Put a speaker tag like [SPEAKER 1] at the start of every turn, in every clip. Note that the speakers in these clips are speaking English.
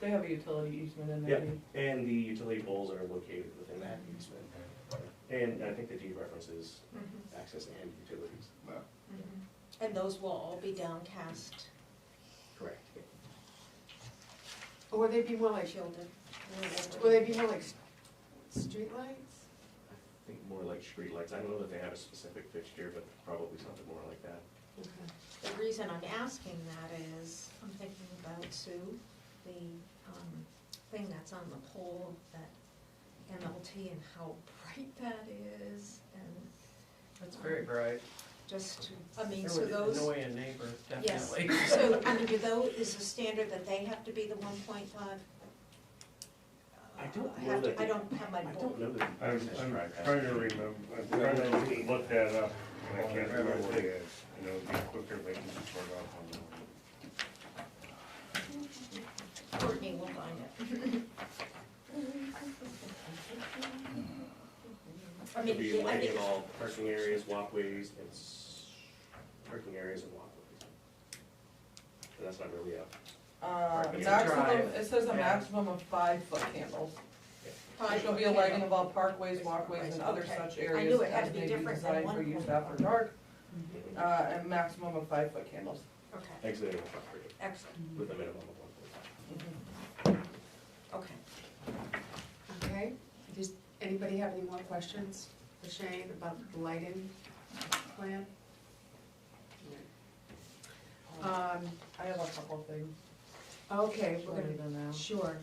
[SPEAKER 1] They have a utility easement in
[SPEAKER 2] Yeah.
[SPEAKER 1] there. too.
[SPEAKER 2] And the utility poles are located within that easement. And I think the deed references
[SPEAKER 3] Mm-hmm,
[SPEAKER 2] access and utilities.
[SPEAKER 4] And those will all be downcast,
[SPEAKER 2] Correct.
[SPEAKER 3] Or would they be more like,
[SPEAKER 4] shielded.
[SPEAKER 3] would they be more like s- streetlights?
[SPEAKER 2] I think more like streetlights. I don't know that they have a specific fixture, but probably something more like that.
[SPEAKER 4] The reason I'm asking that is, I'm thinking about Sue, the um, thing that's on the pole, that MLT and how bright that is, and
[SPEAKER 5] That's very bright.
[SPEAKER 4] just, I mean,
[SPEAKER 5] It
[SPEAKER 4] so
[SPEAKER 5] would
[SPEAKER 4] those,
[SPEAKER 5] annoy a neighbor,
[SPEAKER 4] Yes.
[SPEAKER 5] definitely.
[SPEAKER 4] so, I mean, do those, is the standard that they have to be the one point five?
[SPEAKER 2] I don't know
[SPEAKER 4] have to-
[SPEAKER 2] that-
[SPEAKER 4] I don't have my
[SPEAKER 2] I
[SPEAKER 4] book.
[SPEAKER 2] don't know that.
[SPEAKER 6] I'm, I'm trying to remember, I'm trying to look that up, and I can't remember what it is, and it'll be quicker if I can just start off on that one.
[SPEAKER 4] Courtney will find it. I
[SPEAKER 2] Could be
[SPEAKER 4] mean, I
[SPEAKER 2] lighting
[SPEAKER 4] think,
[SPEAKER 2] of all parking areas, walkways, and s- parking areas and walkways. And that's not really up.
[SPEAKER 1] Uh,
[SPEAKER 2] Parking
[SPEAKER 1] maximum,
[SPEAKER 5] drive.
[SPEAKER 1] it says a
[SPEAKER 5] Yeah.
[SPEAKER 1] maximum of five foot candles. There
[SPEAKER 4] five,
[SPEAKER 1] shall be a lighting of all parkways, walkways, and other
[SPEAKER 4] Okay.
[SPEAKER 1] such
[SPEAKER 4] I knew
[SPEAKER 1] areas
[SPEAKER 4] it had to
[SPEAKER 1] as
[SPEAKER 4] be
[SPEAKER 1] may be
[SPEAKER 4] different than
[SPEAKER 1] designed for
[SPEAKER 4] one
[SPEAKER 1] use
[SPEAKER 4] point
[SPEAKER 1] after
[SPEAKER 4] five.
[SPEAKER 1] dark,
[SPEAKER 4] Mm-hmm.
[SPEAKER 1] uh, and maximum of five foot candles.
[SPEAKER 4] okay,
[SPEAKER 2] Exiting the property
[SPEAKER 4] excellent,
[SPEAKER 2] with a minimum of one foot.
[SPEAKER 4] okay.
[SPEAKER 3] Okay, does anybody have any more questions for Shane about the lighting plan? Um,
[SPEAKER 1] I have a couple things.
[SPEAKER 3] okay, we're
[SPEAKER 1] shorter
[SPEAKER 3] gonna,
[SPEAKER 1] than that.
[SPEAKER 4] Sure.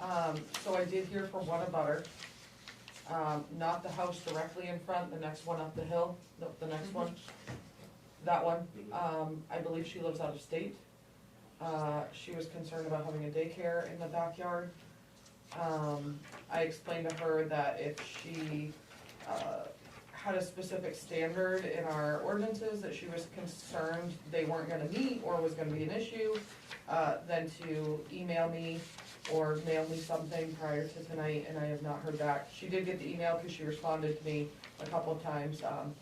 [SPEAKER 1] Um, so I did hear from one abutter, um, not the house directly in front, the next one up the hill, the, the next one. That one, um, I believe she lives out of state. Uh, she was concerned about having a daycare in the backyard. Um, I explained to her that if she, uh, had a specific standard in our ordinances that she was concerned they weren't gonna meet or was gonna be an issue, uh, then to email me or mail me something prior to tonight, and I have not heard back. She did get the email because she responded to me a couple of times, um,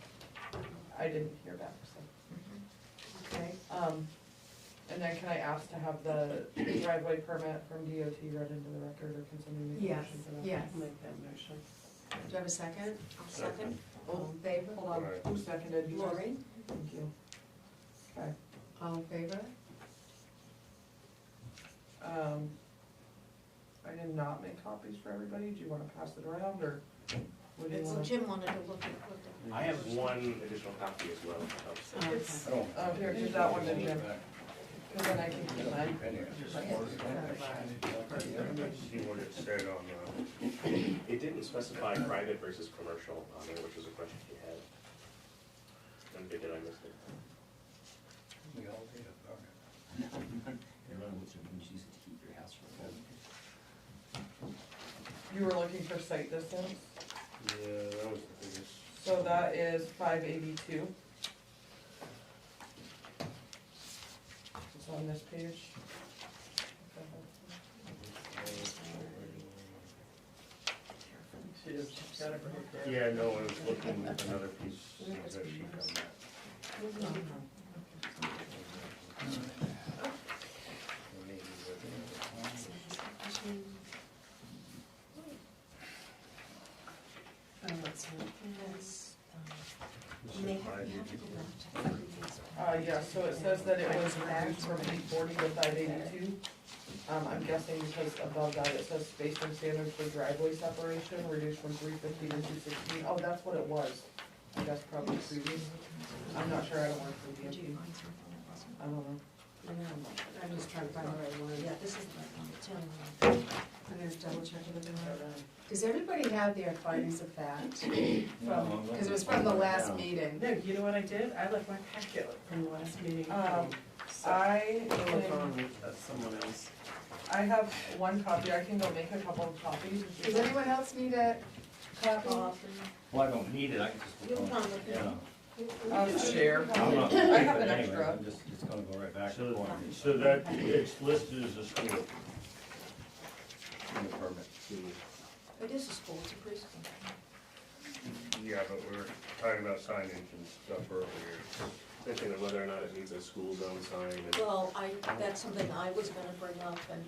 [SPEAKER 1] I didn't hear back, so.
[SPEAKER 4] Mm-hmm.
[SPEAKER 3] okay,
[SPEAKER 1] Um, and then can I ask to have the driveway permit from DOT read into the record, or can somebody make a
[SPEAKER 3] yes,
[SPEAKER 1] motion for that?
[SPEAKER 3] yes.
[SPEAKER 7] Make that motion.
[SPEAKER 3] Do you have a second?
[SPEAKER 4] I'll second.
[SPEAKER 3] All in favor?
[SPEAKER 1] Hold on, who seconded you?
[SPEAKER 4] Lori?
[SPEAKER 1] Thank you. Okay,
[SPEAKER 3] All in favor?
[SPEAKER 1] um, I did not make copies for everybody, do you wanna pass it around, or? what do you
[SPEAKER 4] Well,
[SPEAKER 1] wanna-
[SPEAKER 4] Jim wanted to look at, look at.
[SPEAKER 2] I have one additional copy as well. of-
[SPEAKER 1] It's,
[SPEAKER 6] Oh.
[SPEAKER 1] oh, here, give that one to Jim, because then I can keep mine.
[SPEAKER 6] See what it said on, uh,
[SPEAKER 2] It didn't specify private versus commercial on there, which was a question he had. And did I miss it?
[SPEAKER 8] Everyone was, you used to keep your house for a while.
[SPEAKER 1] You were looking for site distance,
[SPEAKER 6] yeah, that was the biggest.
[SPEAKER 1] so that is five eighty-two. It's on this page.
[SPEAKER 5] She just got it right there.
[SPEAKER 6] Yeah, no, I was looking at another piece, of that sheet on that.
[SPEAKER 3] Oh,
[SPEAKER 1] Mm-hmm.
[SPEAKER 4] And they have, you have to go back to the previous.
[SPEAKER 1] Uh, yeah, so it says that it was reduced from eight forty to five eighty-two. Um, I'm guessing because above that it says spacing standards for driveway separation reduced from three fifteen to two sixteen. Oh, that's what it was. I guess probably previous. I'm not sure, I don't work for
[SPEAKER 4] Did you
[SPEAKER 1] DMP.
[SPEAKER 4] find something
[SPEAKER 1] I
[SPEAKER 4] that wasn't?
[SPEAKER 1] don't know.
[SPEAKER 3] I know, I'm just trying to find the right
[SPEAKER 4] Yeah,
[SPEAKER 3] one.
[SPEAKER 4] this is the one that's on
[SPEAKER 3] I'm gonna double check it again. Does everybody have their findings of fact? From, because it was from the last meeting,
[SPEAKER 7] No, you know what I did? I left my packet from the last meeting.
[SPEAKER 1] Um,
[SPEAKER 7] So,
[SPEAKER 1] I
[SPEAKER 7] I looked
[SPEAKER 1] am-
[SPEAKER 7] on with uh, someone else.
[SPEAKER 1] I have one copy, I can go make a couple of copies.
[SPEAKER 3] does anyone else need a copy?
[SPEAKER 8] Well, I don't need it, I can just.
[SPEAKER 4] You'll find it.
[SPEAKER 8] Yeah.
[SPEAKER 1] Um,
[SPEAKER 4] the.
[SPEAKER 1] I- I
[SPEAKER 8] I'm not gonna keep
[SPEAKER 1] have
[SPEAKER 8] it
[SPEAKER 1] an
[SPEAKER 8] anyway,
[SPEAKER 1] extra.
[SPEAKER 8] I'm just, it's gonna go right back
[SPEAKER 6] So-
[SPEAKER 8] to corner.
[SPEAKER 6] So that, it's listed as a school.
[SPEAKER 8] In the permit.
[SPEAKER 4] It is a school, it's a preschool.
[SPEAKER 6] Yeah, but we were talking about signage and stuff earlier.
[SPEAKER 2] Thinking of whether or not it needs a school zone sign and.
[SPEAKER 4] Well, I, that's something I was gonna bring up and